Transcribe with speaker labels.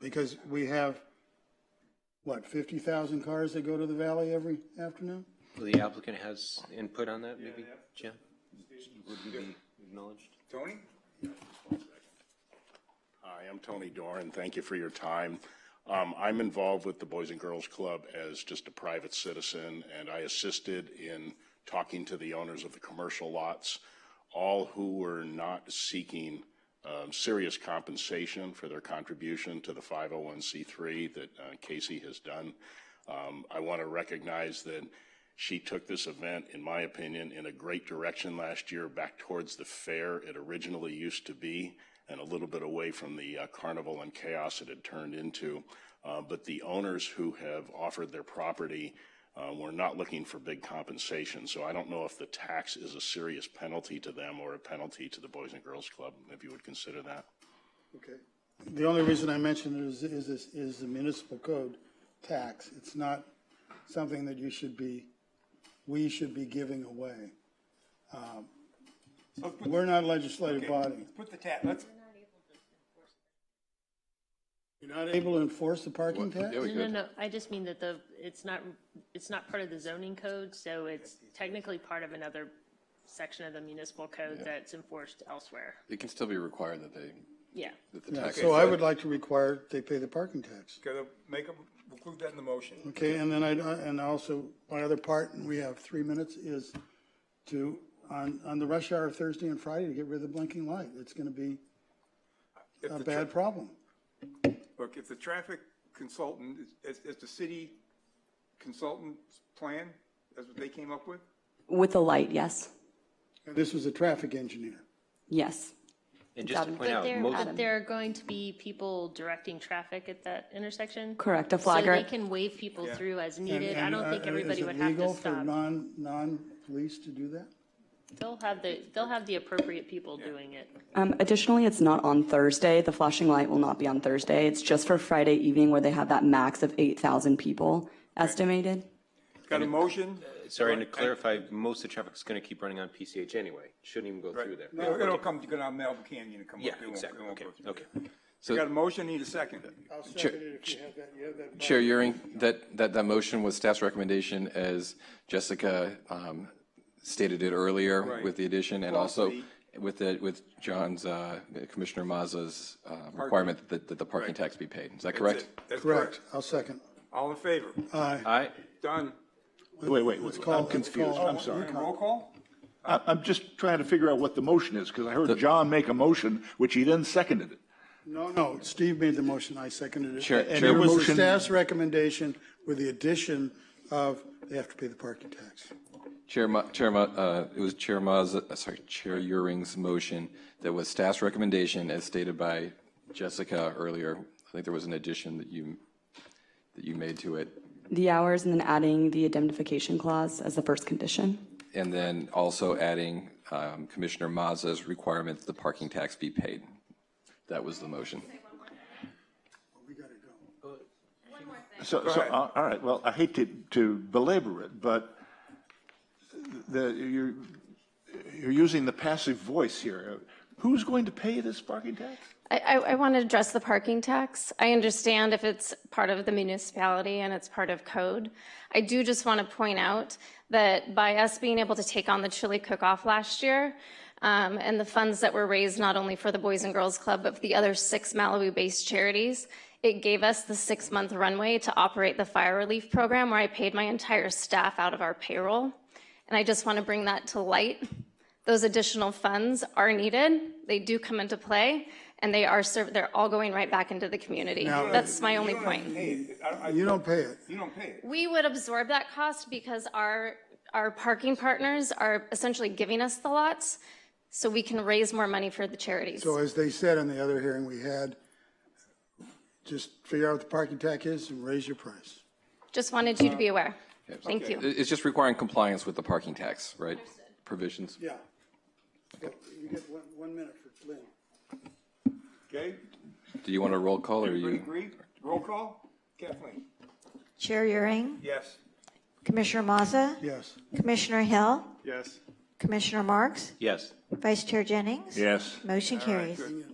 Speaker 1: Because we have, what, 50,000 cars that go to the valley every afternoon?
Speaker 2: Well, the applicant has input on that, maybe, Jim? Would you be acknowledged?
Speaker 3: Tony?
Speaker 4: Hi, I'm Tony Doran. Thank you for your time. Um, I'm involved with the Boys and Girls Club as just a private citizen, and I assisted in talking to the owners of the commercial lots, all who were not seeking um, serious compensation for their contribution to the 501c3 that uh, Casey has done. Um, I want to recognize that she took this event, in my opinion, in a great direction last year, back towards the fair it originally used to be, and a little bit away from the uh, carnival and chaos it had turned into. Uh, But the owners who have offered their property uh, were not looking for big compensation. So I don't know if the tax is a serious penalty to them or a penalty to the Boys and Girls Club, if you would consider that.
Speaker 1: Okay. The only reason I mentioned it is, is, this- is the municipal code tax. It's not something that you should be, we should be giving away. Um,
Speaker 3: Let's put-
Speaker 1: We're not a legislative
Speaker 3: okay,
Speaker 1: body.
Speaker 3: Let's put the tab, let's,
Speaker 1: You're not able to enforce the parking tax?
Speaker 5: There we
Speaker 6: No,
Speaker 5: go.
Speaker 6: no, I just mean that the, it's not, it's not part of the zoning code, so it's technically part of another section of the municipal code that's enforced elsewhere.
Speaker 5: It can still be required that they,
Speaker 6: Yeah.
Speaker 5: that the tax.
Speaker 1: So I would like to require they pay the parking tax.
Speaker 3: gotta make them, include that in the motion.
Speaker 1: Okay, and then I, and also, my other part, and we have three minutes, is to, on, on the rush hour Thursday and Friday, to get rid of the blinking light. It's gonna be
Speaker 3: If
Speaker 1: a
Speaker 3: the tra-
Speaker 1: bad problem.
Speaker 3: Look, if the traffic consultant, is, is the city consultant's plan, that's what they came up with?
Speaker 7: With a light, yes.
Speaker 1: And This was a traffic engineer.
Speaker 7: Yes.
Speaker 2: And just to
Speaker 7: Adam.
Speaker 2: point out,
Speaker 6: There,
Speaker 7: um,
Speaker 2: most,
Speaker 6: but there are going to be people directing traffic at that intersection.
Speaker 7: Correct,
Speaker 6: So
Speaker 7: a
Speaker 6: they
Speaker 7: flagger.
Speaker 6: can wave people through as needed. I
Speaker 1: And-
Speaker 6: don't
Speaker 1: and,
Speaker 6: think
Speaker 1: uh,
Speaker 6: everybody would have to
Speaker 1: Is it legal for
Speaker 6: stop.
Speaker 1: non, non-police to do that?
Speaker 6: They'll have the, they'll have the appropriate people doing it.
Speaker 7: Um, additionally, it's not on Thursday. The flashing light will not be on Thursday. It's just for Friday evening where they have that max of 8,000 people estimated.
Speaker 3: Got a motion?
Speaker 2: sorry, and to clarify, most of the traffic's going to keep running on PCH anyway. Shouldn't even go through
Speaker 3: Right.
Speaker 2: there.
Speaker 3: It'll it'll come, go down Melville Canyon and come up.
Speaker 2: Yeah,
Speaker 3: It won't- it
Speaker 2: exactly.
Speaker 3: won't
Speaker 2: Okay,
Speaker 3: go through.
Speaker 2: okay.
Speaker 3: So got a motion, need a second.
Speaker 1: I'll
Speaker 5: Chair-
Speaker 1: second it if you have that, you have that.
Speaker 5: Chair Euring, that, that, that motion was staff's recommendation as Jessica um, stated it earlier with the addition and also with the, with John's, uh, Commissioner Mazza's uh, requirement that, that the parking tax be paid. Is that correct?
Speaker 3: That's
Speaker 1: Correct, I'll second.
Speaker 3: All in favor?
Speaker 2: Aye,
Speaker 3: Done.
Speaker 8: Wait, wait, wait,
Speaker 1: call-
Speaker 8: I'm
Speaker 1: let's
Speaker 8: confused,
Speaker 1: call-
Speaker 8: Oh, I'm sorry.
Speaker 3: And Roll call?
Speaker 8: I- I'm just trying to figure out what the motion is, because I heard John make a motion, which he then seconded it.
Speaker 1: No, no, Steve made the motion, I seconded it.
Speaker 5: Chair-
Speaker 1: And
Speaker 5: Chair-
Speaker 1: it was the
Speaker 8: Motion-
Speaker 1: staff's recommendation with the addition of they have to pay the parking tax.
Speaker 5: Chair, Ma- Chair, Ma- uh, it was Chair Mazza, uh, sorry, Chair Euring's motion that was staff's recommendation as stated by Jessica earlier. I think there was an addition that you, that you made to it.
Speaker 7: The hours and then adding the indemnification clause as the first condition.
Speaker 5: And then also adding um, Commissioner Mazza's requirement that the parking tax be paid. That was the motion.
Speaker 1: We gotta go.
Speaker 8: So, so, uh, all right, well, I hate to, to belabor it, but the, you're, you're using the passive voice here. Who's going to pay this parking tax?
Speaker 9: I, I, I want to address the parking tax. I understand if it's part of the municipality and it's part of code. I do just want to point out that by us being able to take on the chili cook-off last year, um, and the funds that were raised not only for the Boys and Girls Club, but for the other six Malibu-based charities, it gave us the six-month runway to operate the fire relief program where I paid my entire staff out of our payroll. And I just want to bring that to light those additional funds are needed. They do come into play, and they are, serv- they're all going right back into the community. That's my only point.
Speaker 3: Hey, I, I,
Speaker 1: You
Speaker 3: you
Speaker 1: don't pay it.
Speaker 3: don't pay it.
Speaker 9: We would absorb that cost because our, our parking partners are essentially giving us the lots, so we can raise more money for the charities.
Speaker 1: So as they said in the other hearing we had, just figure out what the parking tax is and raise your price.
Speaker 9: Just wanted you to be aware. Thank you.
Speaker 5: It- It's just requiring compliance with the parking tax, right? Provisions.
Speaker 1: Yeah. You get one, one minute for Lynn.
Speaker 3: Okay?
Speaker 5: Do you want a roll call or
Speaker 3: Everybody
Speaker 5: you?
Speaker 3: agree? Roll call? Kathleen?
Speaker 10: Chair Euring,
Speaker 3: Yes.
Speaker 10: Commissioner Mazza,
Speaker 1: Yes.
Speaker 10: Commissioner Hill,
Speaker 3: Yes.
Speaker 10: Commissioner Marks,
Speaker 2: yes.
Speaker 10: Vice Chair Jennings.
Speaker 8: Yes.
Speaker 10: Motion carries.
Speaker 3: Good.